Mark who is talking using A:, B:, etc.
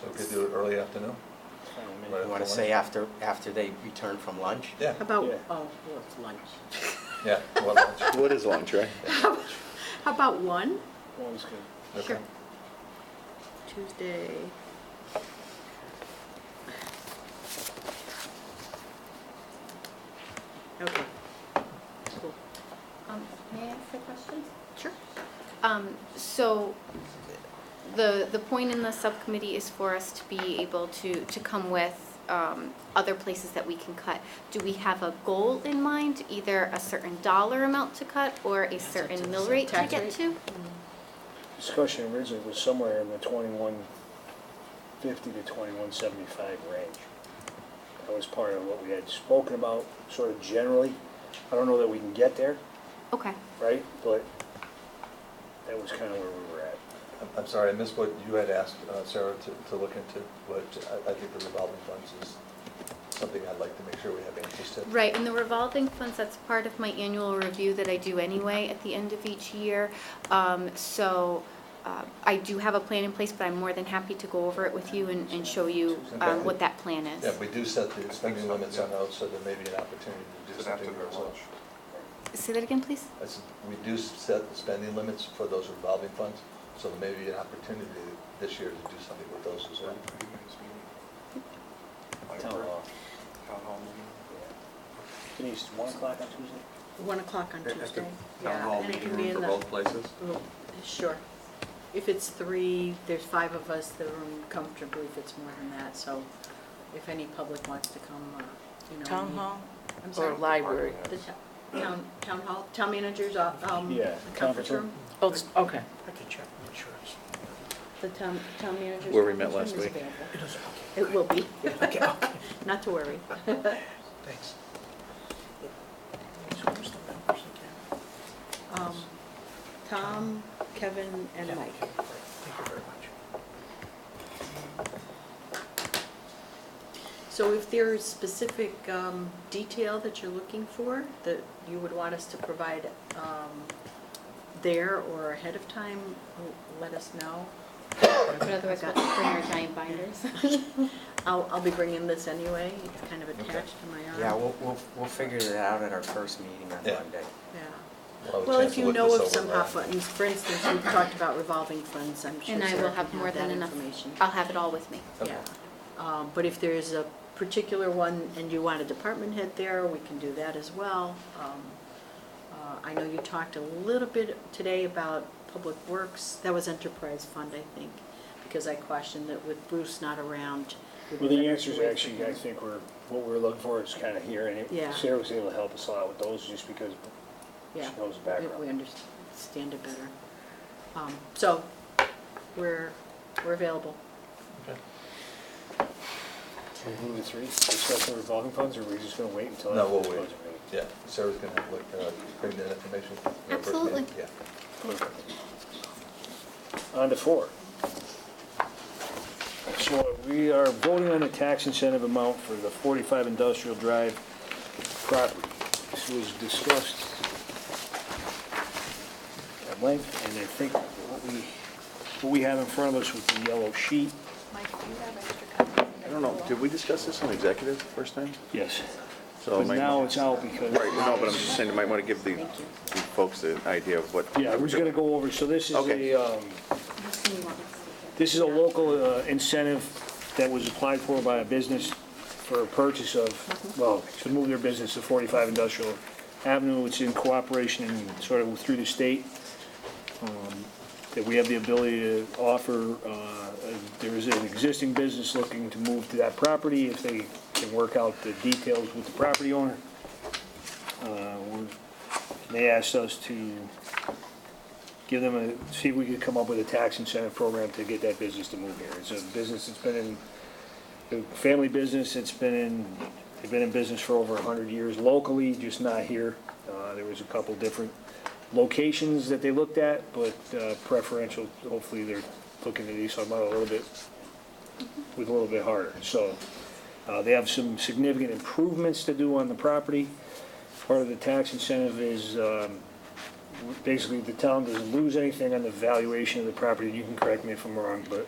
A: So we could do it early afternoon? Right
B: You want
A: after
B: to say
A: lunch?
B: after, after they return from lunch?
A: Yeah,
C: About,
B: Yeah.
C: oh, well, it's lunch.
A: yeah. we'll have lunch.
D: What is lunch, right?
C: How about one?
B: Always good.
A: Okay.
C: Tuesday. Okay. Cool.
E: Um, May I ask a question?
C: Sure.
E: Um, So the, the point in the subcommittee is for us to be able to, to come with um, other places that we can cut. Do we have a goal in mind, either a certain dollar amount to cut or a certain mill rate to
C: Tax
E: get
C: rate?
E: to?
F: Discussion originally was somewhere in the twenty-one fifty to twenty-one seventy-five range. That was part of what we had spoken about, sort of generally. I don't know that we can get there,
E: Okay.
F: right? But that was kind of where we were at.
A: I'm- I'm sorry, I missed what you had asked uh, Sarah to, to look into, but I, I think the revolving funds is something I'd like to make sure we have interest in.
E: Right, and the revolving funds, that's part of my annual review that I do anyway at the end of each year. Um, So uh, I do have a plan in place, but I'm more than happy to go over it with you and, and show you um, what that plan is.
A: Yeah, we do set the spending limits on those, so there may be an opportunity to do
G: Is it after
A: something.
G: their
A: with
G: lunch?
A: those.
E: Say that again, please?
A: I said, we do set the spending limits for those revolving funds, so there may be an opportunity this year to do something with those as well.
F: Town hall.
G: Town hall meeting?
F: Denise, one o'clock on Tuesday?
C: One o'clock on
G: At the
C: Tuesday.
G: Town
C: Yeah,
G: hall
C: and it
G: meeting
C: can be
G: room
C: in
G: for
C: the-
G: both places?
C: Oh, Sure. If it's three, there's five of us, the room comfortably fits more than that, so if any public wants to come, uh, you know.
H: Town
C: we-
H: hall
C: I'm
H: or
C: sorry.
H: library?
C: The to- town, town hall, town manager's, uh, um,
F: Yeah,
C: conference
F: conference
C: room?
F: room.
H: Oh, it's- okay.
I: I can check and make sure it's,
C: The town, town manager's.
D: Where we met
C: conference room
D: last
C: is
D: week.
C: available.
I: it is,
C: It will be,
I: okay, okay,
C: not to worry.
I: thanks. So where's the members again?
C: Um, Tom, Kevin, and Mike.
I: Thank you very much.
C: So if there is specific um, detail that you're looking for, that you would want us to provide um, there or ahead of time, l- let us know.
E: But otherwise, we'll bring our giant binders.
C: I'll, I'll be bringing this anyway, it's kind of
A: Okay.
C: attached to my arm.
B: Yeah, we'll, we'll, we'll figure it out at our first meeting on
A: Yeah.
B: Monday.
C: Yeah.
A: We'll have a
C: Well,
A: chance
C: if
A: to
C: you
A: look
C: know
A: this
C: of
A: over uh,
C: some
A: now.
C: hot buttons, for instance, we've talked about revolving funds, I'm sure
E: And I
C: Sarah
E: will
C: can
E: have more
C: that
E: than enough.
C: information.
E: I'll have it all with me.
A: Okay.
C: Yeah, Um, but if there is a particular one and you want a department head there, we can do that as well. Um, uh, I know you talked a little bit today about Public Works, that was Enterprise Fund, I think, because I questioned that with Bruce not around. we
F: Well,
C: would
F: the
C: have
F: answers
C: to wait for
F: actually,
C: him.
F: I think we're, what we're looking for is kind of here. And
C: Yeah.
F: it- Sarah was able to help us a lot with those just because she
C: Yeah.
F: knows the
C: We- We
F: background.
C: understand it better. Um, So, we're, we're available.
A: Okay.
F: So Who are the three? Discussing revolving funds, or are we just gonna wait until?
A: No,
F: after
A: we'll
F: the
A: wait.
F: budget meeting?
A: Yeah, Sarah's gonna have, like, uh, bring that information. for our first meeting.
E: Absolutely.
A: Yeah.
F: On to four. So we are voting on the tax incentive amount for the 45 Industrial Drive property. This was discussed at length, and I think what we, what we have in front of us with the yellow sheet.
D: I don't know, did we discuss this on executive first time?
F: Yes.
D: So
F: But
D: might-
F: now it's out because.
D: Right, no, Oh, but I'm just saying, you might want to give the
C: Thank you.
D: the folks the idea of what.
F: Yeah, we're just gonna go over, so this is
D: Okay.
F: a, um, This is a local uh, incentive that was applied for by a business for a purchase of, well, to move their business to 45 Industrial Avenue. It's in cooperation and sort of through the state, um, that we have the ability to offer, uh, a- there is an existing business looking to move to that property if they can work out the details with the property owner. Uh, we're- They asked us to give them a, see if we could come up with a tax incentive program to get that business to move here. It's a business that's been in, a family business, it's been in, they've been in business for over hundred years locally, just not here. Uh, there was a couple different locations that they looked at, but uh, preferential, hopefully they're looking at East Long Meadow a little bit, with a little bit harder. So, uh, they have some significant improvements to do on the property. Part of the tax incentive is, um, basically the town doesn't lose anything on the valuation of the property. You can correct me if I'm wrong, but